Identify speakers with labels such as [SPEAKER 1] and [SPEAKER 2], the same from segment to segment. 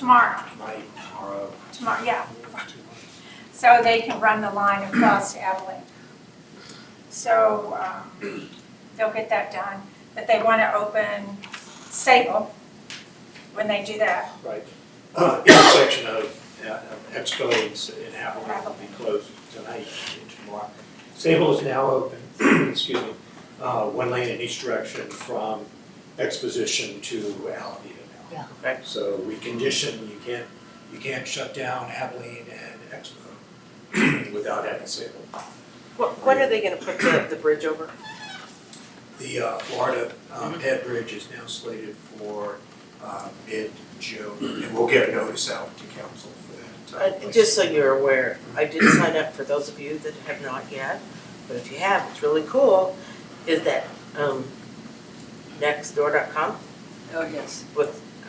[SPEAKER 1] tomorrow,
[SPEAKER 2] night tomorrow.
[SPEAKER 1] tomorrow, yeah. So they can run the line across to Abilene. So, um, they'll get that done, but they wanna open Sable when they do that.
[SPEAKER 2] Right. Uh, Intersection of uh, of Expo and S- and Avalon will be closed tonight and tomorrow. Sable is now open, excuse me, uh, one lane in each direction from Exposition to Alameda now.
[SPEAKER 3] Yeah.
[SPEAKER 4] Okay.
[SPEAKER 2] So we condition, you can't, you can't shut down Abilene and Expo without having Sable.
[SPEAKER 4] What, when are they gonna put the, the bridge over?
[SPEAKER 2] The uh, Florida um, Head Bridge is now slated for uh, mid-June, and we'll get a notice out to council for
[SPEAKER 4] Uh,
[SPEAKER 2] that. uh,
[SPEAKER 4] just so you're aware, I did sign up for those of you that have not yet, but if you have, it's really cool, is that, um, nextdoor.com,
[SPEAKER 3] Oh, yes.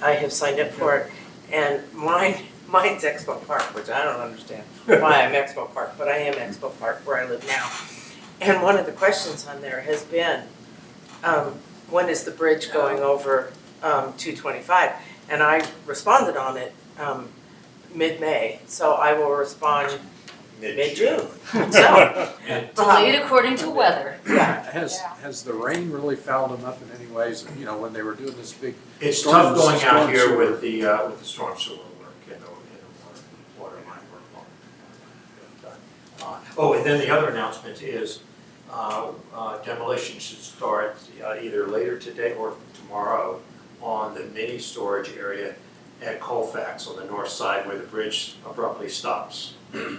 [SPEAKER 4] I have signed up for it, and mine, mine's Expo Park, which I don't understand why I'm Expo Park, but I am Expo Park where I live now. And one of the questions on there has been, um, when is the bridge going over, um, two twenty-five? And I responded on it, um, mid-May, so I will respond mid-June, so,
[SPEAKER 3] Delayed according to weather.
[SPEAKER 4] yeah.
[SPEAKER 5] Has,
[SPEAKER 1] Yeah.
[SPEAKER 5] has the rain really fouled them up in any ways, you know, when they were doing this big,
[SPEAKER 2] It's tough
[SPEAKER 5] Storm-
[SPEAKER 2] going out
[SPEAKER 5] storm
[SPEAKER 2] here
[SPEAKER 5] sewer.
[SPEAKER 2] with the, uh, with the storm sewer work and the, and the water, water line work. Uh, Oh, and then the other announcement is uh, uh, demolition should start uh, either later today or tomorrow on the mini storage area at Colfax on the north side where the bridge abruptly stops.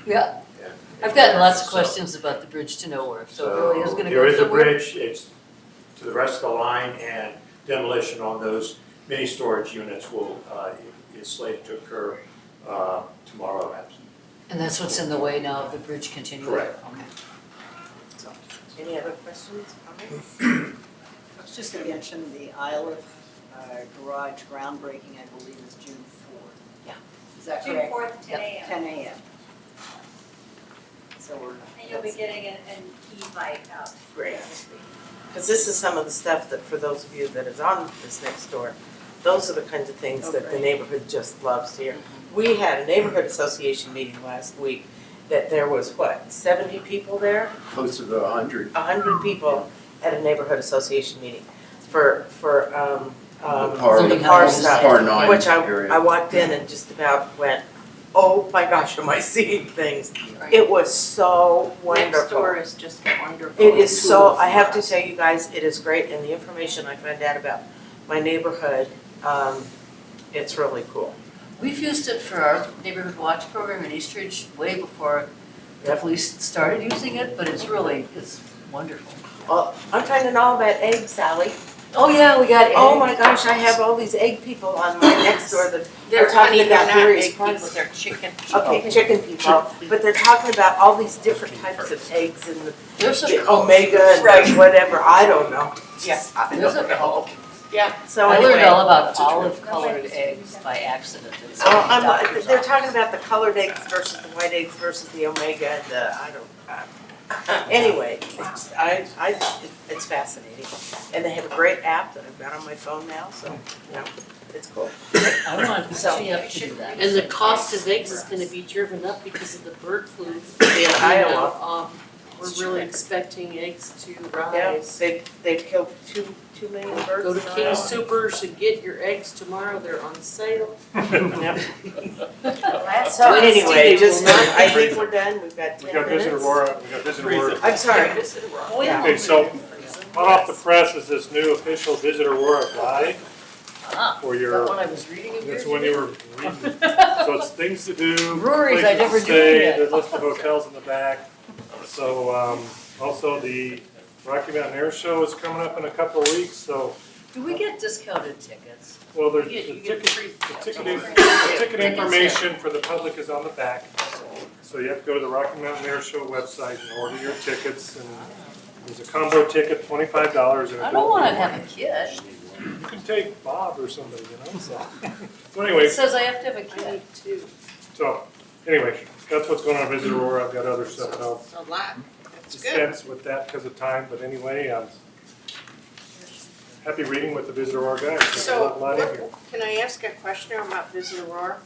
[SPEAKER 3] Yeah.
[SPEAKER 2] And-
[SPEAKER 3] I've gotten lots of
[SPEAKER 2] So-
[SPEAKER 3] questions about the bridge to nowhere, so it
[SPEAKER 2] so
[SPEAKER 3] really is gonna go
[SPEAKER 2] there is a
[SPEAKER 3] somewhere.
[SPEAKER 2] bridge, it's to the rest of the line and demolition on those mini storage units will, uh, is slated to occur, uh, tomorrow afternoon.
[SPEAKER 3] And that's what's in the way now of the bridge continuing.
[SPEAKER 2] Correct.
[SPEAKER 3] Okay.
[SPEAKER 4] Any other questions, comments?
[SPEAKER 6] I was just gonna mention the Isle of uh, Garage groundbreaking, I believe, is June fourth.
[SPEAKER 3] Yeah.
[SPEAKER 6] Is that
[SPEAKER 1] June
[SPEAKER 6] correct?
[SPEAKER 1] fourth, ten AM.
[SPEAKER 6] Ten AM. So we're.
[SPEAKER 1] And you'll be getting an, an e-bike out.
[SPEAKER 4] Great. Because this is some of the stuff that, for those of you that is on this next door, those are the kinds of things
[SPEAKER 7] Oh,
[SPEAKER 4] that the
[SPEAKER 6] Okay.
[SPEAKER 4] neighborhood just loves here. We had a neighborhood association meeting last week that there was, what, seventy people there?
[SPEAKER 8] close to the hundred.
[SPEAKER 4] A hundred people at a neighborhood association meeting for, for, um, um,
[SPEAKER 8] The par-
[SPEAKER 4] the
[SPEAKER 3] Something
[SPEAKER 4] par
[SPEAKER 3] else.
[SPEAKER 4] stuff.
[SPEAKER 8] Par nine
[SPEAKER 4] Which I,
[SPEAKER 8] area.
[SPEAKER 4] I walked in and just about went, oh my gosh, am I seeing things? It was so wonderful.
[SPEAKER 7] Next door is just wonderful.
[SPEAKER 4] It is so, I have to say, you guys, it is great, and the information I found out about my neighborhood, um, it's really cool.
[SPEAKER 3] We've used it for our neighborhood watch program in Eastridge way before the
[SPEAKER 4] Yep.
[SPEAKER 3] police started using it, but it's really, it's wonderful.
[SPEAKER 4] I'm finding all about eggs, Sally.
[SPEAKER 3] Oh, yeah, we got
[SPEAKER 4] Oh my gosh, I have all these egg people on my next door that,
[SPEAKER 7] They're
[SPEAKER 4] talking
[SPEAKER 7] honey, they're
[SPEAKER 4] about
[SPEAKER 7] not
[SPEAKER 4] various
[SPEAKER 7] egg people,
[SPEAKER 4] parts.
[SPEAKER 7] they're chicken.
[SPEAKER 4] okay, chicken people, but they're talking about all these different types of eggs and the
[SPEAKER 3] There's a
[SPEAKER 4] the
[SPEAKER 3] cult.
[SPEAKER 4] omega and
[SPEAKER 7] Right.
[SPEAKER 4] whatever, I don't know.
[SPEAKER 7] Yeah.
[SPEAKER 4] I
[SPEAKER 3] There's a cult.
[SPEAKER 4] So
[SPEAKER 3] I learned all
[SPEAKER 4] anyway,
[SPEAKER 3] about olive colored eggs by accident in
[SPEAKER 4] so Oh, I'm, uh,
[SPEAKER 3] somebody's doctor's
[SPEAKER 4] they're
[SPEAKER 3] office.
[SPEAKER 4] talking about the colored eggs versus the white eggs versus the omega and the, I don't, I- anyway, it's, I, I, it's fascinating. And they have a great app that I've got on my phone now, so, you know, it's cool.
[SPEAKER 3] I want to
[SPEAKER 4] So-
[SPEAKER 3] see up to do that.
[SPEAKER 7] And the cost of eggs is gonna be driven up because of the bird flu.
[SPEAKER 4] Yeah, I
[SPEAKER 7] You
[SPEAKER 4] don't
[SPEAKER 7] know,
[SPEAKER 4] know.
[SPEAKER 7] um,
[SPEAKER 4] It's
[SPEAKER 7] We're
[SPEAKER 4] true.
[SPEAKER 7] really expecting eggs to
[SPEAKER 4] Yeah,
[SPEAKER 7] rise.
[SPEAKER 4] they, they've killed two, two million birds.
[SPEAKER 7] Go to
[SPEAKER 4] now.
[SPEAKER 7] King Supers and get your eggs tomorrow, they're on sale.
[SPEAKER 4] Yep.
[SPEAKER 1] Let's
[SPEAKER 4] So
[SPEAKER 7] Wednesday
[SPEAKER 4] anyway,
[SPEAKER 7] will
[SPEAKER 4] just,
[SPEAKER 7] not
[SPEAKER 4] I
[SPEAKER 7] be-
[SPEAKER 4] think we're done, we've got
[SPEAKER 9] We
[SPEAKER 4] ten
[SPEAKER 9] got
[SPEAKER 4] minutes.
[SPEAKER 9] Visit Aurora, we got Visit Aurora.
[SPEAKER 4] I'm sorry,
[SPEAKER 9] Okay, so hot off the press is this new official Visit Aurora guide
[SPEAKER 3] Ah,
[SPEAKER 9] for
[SPEAKER 3] is that
[SPEAKER 9] your,
[SPEAKER 3] one I was reading in years
[SPEAKER 9] that's when you
[SPEAKER 3] ago?
[SPEAKER 9] were reading. So it's things to do,
[SPEAKER 3] Breweries, I
[SPEAKER 9] places to
[SPEAKER 3] never knew
[SPEAKER 9] stay,
[SPEAKER 3] that.
[SPEAKER 9] the list of hotels in the back. So, um, also the Rocky Mountain Air Show is coming up in a couple of weeks, so,
[SPEAKER 3] Do we get discounted tickets?
[SPEAKER 9] well,
[SPEAKER 7] You
[SPEAKER 9] there's
[SPEAKER 7] get,
[SPEAKER 9] the
[SPEAKER 7] you get
[SPEAKER 9] ticket,
[SPEAKER 7] free.
[SPEAKER 9] the
[SPEAKER 7] yeah.
[SPEAKER 9] ticket, in- the ticket
[SPEAKER 3] Yeah.
[SPEAKER 9] information for the public is on the back. So you have to go to the Rocky Mountain Air Show website and order your tickets and there's a combo ticket, twenty-five dollars and
[SPEAKER 3] I don't want to have a kid.
[SPEAKER 9] You can take Bob or somebody, you know, so. So anyway,
[SPEAKER 3] It says I have to have a
[SPEAKER 7] I
[SPEAKER 3] kid.
[SPEAKER 7] need two.
[SPEAKER 9] so, anyway, that's what's going on at Visit Aurora. I've got other stuff that I'll
[SPEAKER 7] A lot. That's
[SPEAKER 9] dispense with that because of time, but anyway, um, happy reading with the Visit Aurora guys. There's a lot in here.
[SPEAKER 7] can I ask a question about Visit Aurora?